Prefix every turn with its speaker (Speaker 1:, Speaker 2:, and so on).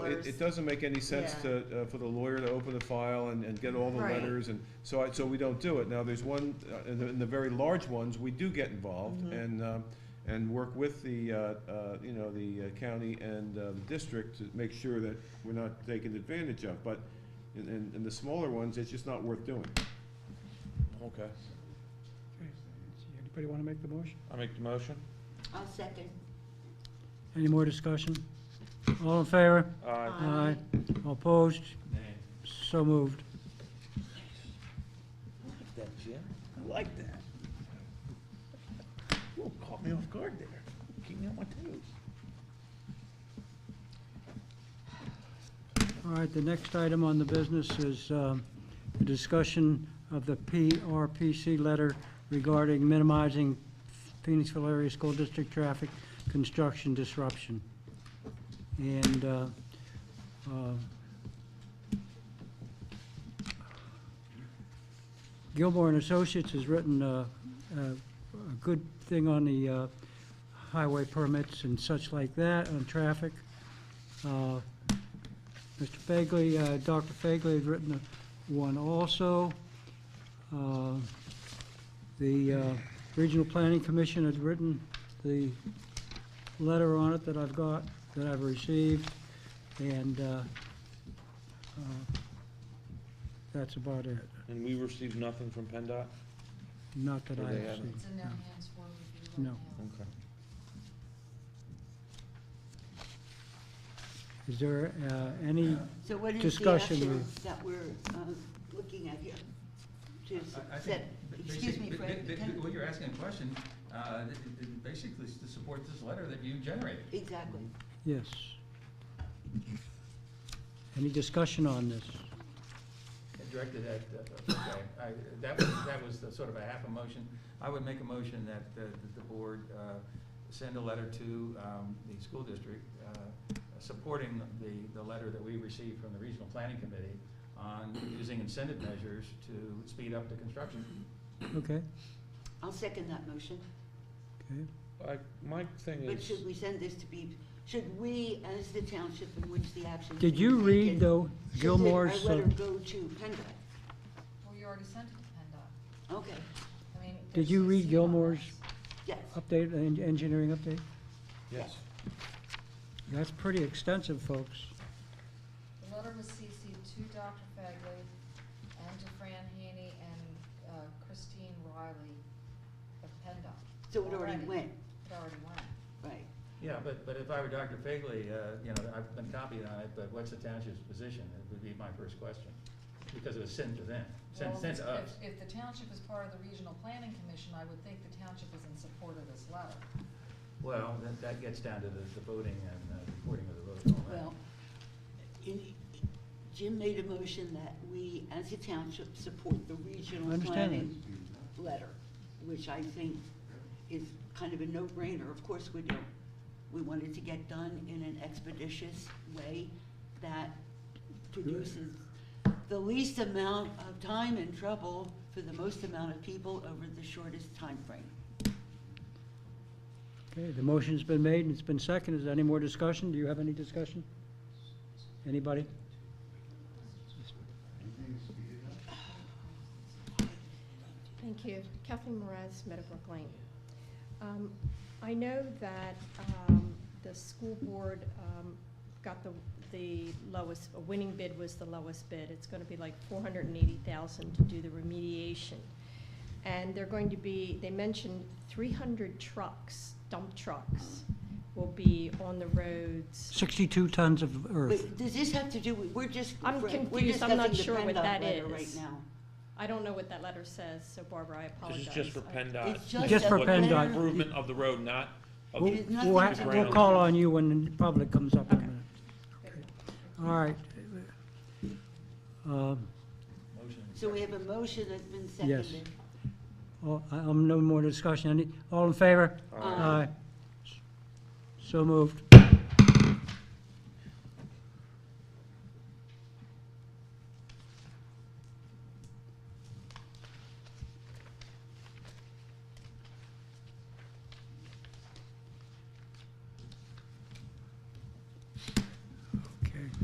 Speaker 1: it, it doesn't make any sense
Speaker 2: Yeah.
Speaker 1: to, uh, for the lawyer to open the file and, and get all the
Speaker 2: Right.
Speaker 1: letters, and so I, so we don't do it. Now, there's one, uh, in the, in the very large ones, we do get involved
Speaker 2: Mm-hmm.
Speaker 1: and, um, and work with the, uh, uh, you know, the uh, county and, uh, the district to make sure that we're not taken advantage of, but in, in, in the smaller ones, it's just not worth doing.
Speaker 3: Okay,
Speaker 4: Anybody want to make the motion?
Speaker 3: I make the motion.
Speaker 2: I'll second.
Speaker 4: Any more discussion? All in favor?
Speaker 3: Aye.
Speaker 2: Aye.
Speaker 4: All Opposed? So moved.
Speaker 5: That, Jim, I like that. Whoa, caught me off guard there. Keep me on my toes.
Speaker 4: All right, the next item on the business is um, the discussion of the PRPC letter regarding minimizing Phoenixville area school district traffic construction disruption. And uh, uh, Gilmore and Associates has written uh, a a good thing on the uh, highway permits and such like that, on traffic. Uh, Mr. Fagley, uh, Dr. Fagley has written a- one also. Uh, The uh, Regional Planning Commission has written the letter on it that I've got, that I've received, and uh, uh, that's about it,
Speaker 3: And we received nothing from PennDOT?
Speaker 4: not that
Speaker 3: Or
Speaker 4: I
Speaker 3: they
Speaker 4: have
Speaker 3: haven't.
Speaker 4: seen.
Speaker 6: It's in their hands for review
Speaker 4: No.
Speaker 6: right now.
Speaker 3: Okay.
Speaker 4: Is there uh, any,
Speaker 2: So what is the
Speaker 4: Discussion.
Speaker 2: action that we're um, looking at here? Just
Speaker 7: I- I think
Speaker 2: set,
Speaker 7: ba-
Speaker 2: excuse
Speaker 7: basic-
Speaker 2: me,
Speaker 7: ba-
Speaker 2: Fred.
Speaker 7: ba-
Speaker 2: can-
Speaker 7: ba- What you're asking a question, uh, th- th- th- basically is to support this letter that you generated.
Speaker 2: Exactly.
Speaker 4: yes. Any discussion on this?
Speaker 7: Directed at, uh, okay, I- that was, that was the sort of a half a motion. I would make a motion that uh, that the board uh, send a letter to um, the school district uh, supporting the, the letter that we received from the Regional Planning Committee on using incentive measures to speed up the construction.
Speaker 4: Okay,
Speaker 2: I'll second that motion.
Speaker 4: okay.
Speaker 3: Like, my thing
Speaker 2: But
Speaker 3: is,
Speaker 2: should we send this to be, should we, as the township in which the action?
Speaker 4: Did
Speaker 2: is
Speaker 4: you
Speaker 2: being taken,
Speaker 4: read, though,
Speaker 2: should
Speaker 4: Gilmore's?
Speaker 2: Our
Speaker 4: uh,
Speaker 2: letter go to PennDOT?
Speaker 6: Well, you already sent it to PennDOT.
Speaker 2: Okay,
Speaker 6: I mean.
Speaker 4: Did
Speaker 6: there's
Speaker 4: you
Speaker 6: a
Speaker 4: read
Speaker 6: CMRS.
Speaker 4: Gilmore's
Speaker 2: yes.
Speaker 4: uh, update, en- engineering update?
Speaker 3: yes,
Speaker 4: That's pretty extensive, folks.
Speaker 6: The letter was CC'd to Dr. Fagley and to Fran Haney and uh, Christine Riley of PennDOT.
Speaker 2: So it already went,
Speaker 6: It already went.
Speaker 2: right.
Speaker 7: Yeah, but, but if I were Dr. Fagley, uh, you know, I've been copied on it, but what's the township's position? It would be my first question, because it was sent to them, sent,
Speaker 6: Well,
Speaker 7: sent to
Speaker 6: if-
Speaker 7: us.
Speaker 6: If the township is part of the Regional Planning Commission, I would think the township is in support of this letter.
Speaker 7: Well, that, that gets down to the, the voting and uh, recording of the vote and all that.
Speaker 2: Well, in- Jim made a motion that we, as a township, support the
Speaker 4: I
Speaker 2: regional
Speaker 4: understand
Speaker 2: planning letter, which I think is kind of a no-brainer. Of course, we do. We want it to get done in an expeditious way that produces the least amount of time and trouble for the most amount of people over the shortest time frame.
Speaker 4: Okay, the motion's been made and it's been seconded. Is there any more discussion? Do you have any discussion? Anybody?
Speaker 8: Thank you. Kathleen Moraz, Meadowbrook Lane. Um, I know that um, the school board um, got the, the lowest, a winning bid was the lowest bid. It's going to be like 480,000 to do the remediation. And they're going to be, they mentioned 300 trucks, dump trucks, will be on the roads.
Speaker 4: Sixty-two tons of earth.
Speaker 2: Wait, does this have to do, with- we're just,
Speaker 8: I'm
Speaker 2: Fran, we're
Speaker 8: confused. I'm not
Speaker 2: discussing the
Speaker 8: sure what
Speaker 2: PennDOT
Speaker 8: that
Speaker 2: letter right now.
Speaker 8: is. I don't know what that letter says, so Barbara, I
Speaker 3: this
Speaker 8: apologize.
Speaker 3: is just for
Speaker 8: I-
Speaker 3: PennDOT.
Speaker 2: It's just
Speaker 4: Just for
Speaker 3: What-
Speaker 4: PennDOT.
Speaker 3: Improvement of the road, not of
Speaker 4: We'll,
Speaker 2: It
Speaker 3: the
Speaker 2: is nothing
Speaker 4: we'll
Speaker 2: to
Speaker 4: act-
Speaker 3: do
Speaker 4: we'll
Speaker 3: with-
Speaker 4: call on you when the public comes up in a
Speaker 8: Okay.
Speaker 4: minute. All right. Um,
Speaker 7: Motion.
Speaker 2: So we have a motion that's been
Speaker 4: Yes.
Speaker 2: seconded.
Speaker 4: all- I- I'm no more discussion. Any, all in favor?
Speaker 2: Aye.
Speaker 4: So moved.